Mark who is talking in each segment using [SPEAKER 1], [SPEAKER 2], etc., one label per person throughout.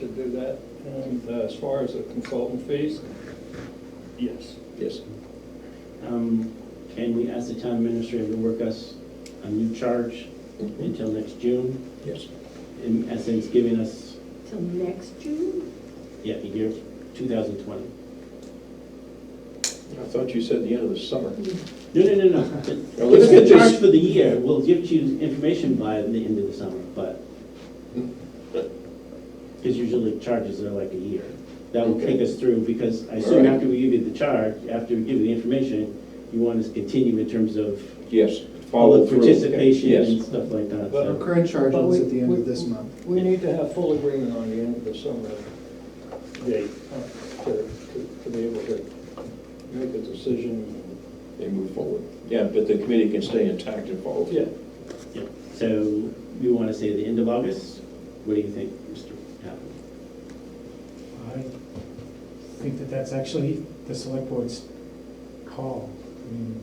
[SPEAKER 1] do that. And uh, as far as the consultant fees, yes.
[SPEAKER 2] Yes. Um, And we asked the town administrator to work us a new charge until next June,
[SPEAKER 3] Yes.
[SPEAKER 2] in essence giving us,
[SPEAKER 4] Till next June?
[SPEAKER 2] yeah, the year 2020.
[SPEAKER 3] I thought you said the end of the summer.
[SPEAKER 2] No, no, no, no.
[SPEAKER 3] Now, let's get
[SPEAKER 2] It's a charge
[SPEAKER 3] this-
[SPEAKER 2] for the year. We'll give you information by the end of the summer, but, because usually charges are like a year. That will take us through, because I assume
[SPEAKER 3] Alright.
[SPEAKER 2] after we give you the charge, after we give you the information, you want us to continue in terms of
[SPEAKER 3] Yes.
[SPEAKER 2] all
[SPEAKER 3] Follow
[SPEAKER 2] the
[SPEAKER 3] through.
[SPEAKER 2] participation
[SPEAKER 3] Yes.
[SPEAKER 2] and stuff like that.
[SPEAKER 5] But our
[SPEAKER 2] so-
[SPEAKER 5] current charge
[SPEAKER 1] But we-
[SPEAKER 5] ends at the end
[SPEAKER 1] we-
[SPEAKER 5] of this month.
[SPEAKER 1] We need to have full agreement on the end of the summer date uh, to, to to be able to make a decision.
[SPEAKER 3] They move forward. Yeah, but the committee can stay intact and follow. through.
[SPEAKER 1] Yeah,
[SPEAKER 2] yeah. So we want to say the end of August? What do you think, Mr. Happel?
[SPEAKER 6] I think that that's actually the select board's call. I mean,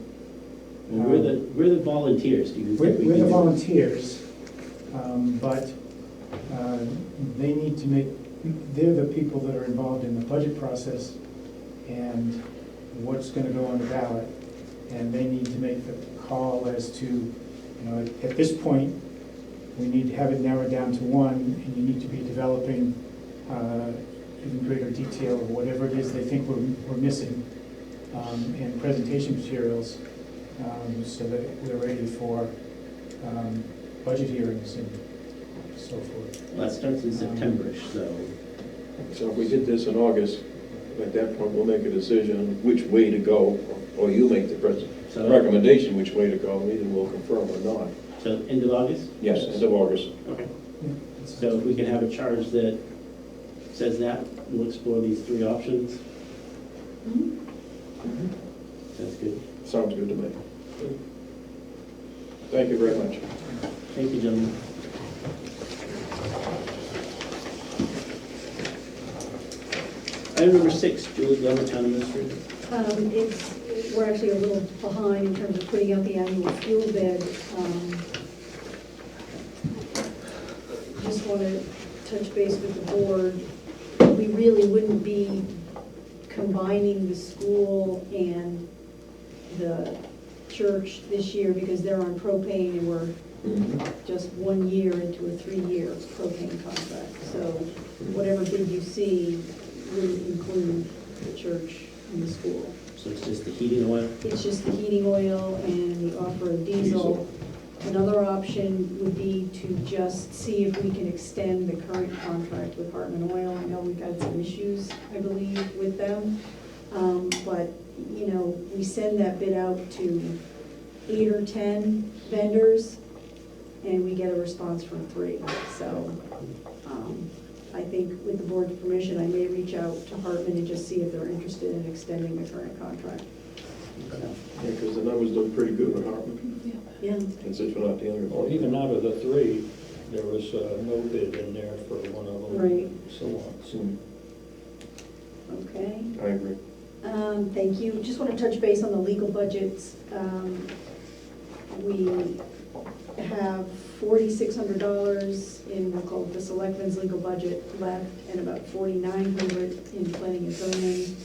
[SPEAKER 2] Well, We're the, we're the volunteers, do you
[SPEAKER 6] We're,
[SPEAKER 2] think? we
[SPEAKER 6] we're
[SPEAKER 2] can
[SPEAKER 6] the
[SPEAKER 2] do-
[SPEAKER 6] volunteers, um, but, uh, they need to make, they're the people that are involved in the budget process and what's gonna go on the ballot. And they need to make the call as to, you know, at- at this point, we need to have it narrowed down to one, and you need to be developing, uh, in greater detail of whatever it is they think we're, we're missing, um, and presentation materials um, so that we're ready for um, budget hearings and so forth.
[SPEAKER 2] Well, it starts in Septemberish, so,
[SPEAKER 3] So if we did this in August, at that point, we'll make a decision which way to go, or you make the pres-
[SPEAKER 2] so,
[SPEAKER 3] recommendation which way to go, and either we'll confirm or not.
[SPEAKER 2] so end of August?
[SPEAKER 3] Yes, end of August.
[SPEAKER 2] Okay.
[SPEAKER 6] Yeah, that's-
[SPEAKER 2] So if we can have a charge that says that, we'll explore these three options. Sounds good.
[SPEAKER 3] Sounds good to me. Thank you very much.
[SPEAKER 2] Thank you, gentlemen. Item number six, Julie Glover, Town Administrator.
[SPEAKER 4] Um, it's, we're actually a little behind in terms of putting out the annual fuel bid. Um, Just want to touch base with the board. We really wouldn't be combining the school and the church this year because they're on propane and we're
[SPEAKER 3] Mm-hmm.
[SPEAKER 4] just one year into a three-year propane contract. So whatever bid you see will include the church and the school.
[SPEAKER 2] So it's just the heating oil.
[SPEAKER 4] It's just the heating oil and the off-road diesel.
[SPEAKER 3] Diesel.
[SPEAKER 4] Another option would be to just see if we can extend the current contract with Hartman Oil. I know we've had some issues, I believe, with them. Um, But, you know, we send that bid out to eight or 10 vendors, and we get a response from three. So um, I think with the board's permission, I may reach out to Hartman and just see if they're interested in extending the current contract.
[SPEAKER 3] Yeah, because the numbers look pretty good on Hartman,
[SPEAKER 4] Yeah,
[SPEAKER 3] and since we're not dealing
[SPEAKER 1] well,
[SPEAKER 3] with.
[SPEAKER 1] even out of the three, there was uh, no bid in there for one of them.
[SPEAKER 4] Right.
[SPEAKER 1] So on, so.
[SPEAKER 3] Hmm,
[SPEAKER 4] okay.
[SPEAKER 3] I agree.
[SPEAKER 4] Um, Thank you. Just want to touch base on the legal budgets. Um, We have forty-six hundred dollars in, we'll call it the selectmen's legal budget left, and about forty-nine hundred in planning and zoning.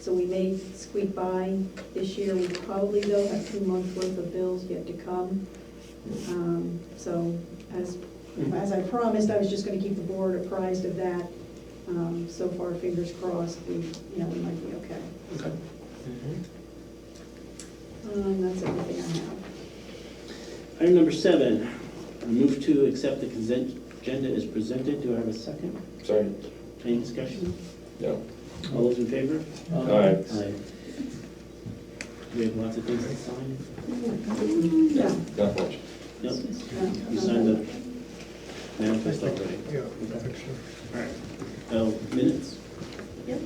[SPEAKER 4] So we may squeak by this year. We probably, though, have two months' worth of bills yet to come. Um, So as, as I promised, I was just gonna keep the board apprised of that. Um, So far, fingers crossed, we, you know, we might be okay. Mm-hmm. Um, That's everything I have.
[SPEAKER 2] Item number seven, I move to accept the consent agenda as presented. Do I have a second?
[SPEAKER 3] Sorry,
[SPEAKER 2] Any discussion?
[SPEAKER 3] no.
[SPEAKER 2] All those in favor?
[SPEAKER 3] Aye.
[SPEAKER 2] Aye. We have lots of things to sign.
[SPEAKER 4] Yeah.
[SPEAKER 3] Not much.
[SPEAKER 2] Yep,
[SPEAKER 4] yeah,
[SPEAKER 2] you signed the manifest already.
[SPEAKER 5] Yeah,
[SPEAKER 2] Oh, minutes?
[SPEAKER 4] Yep.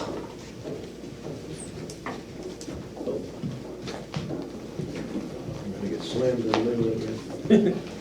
[SPEAKER 3] I'm gonna get slammed in the middle again.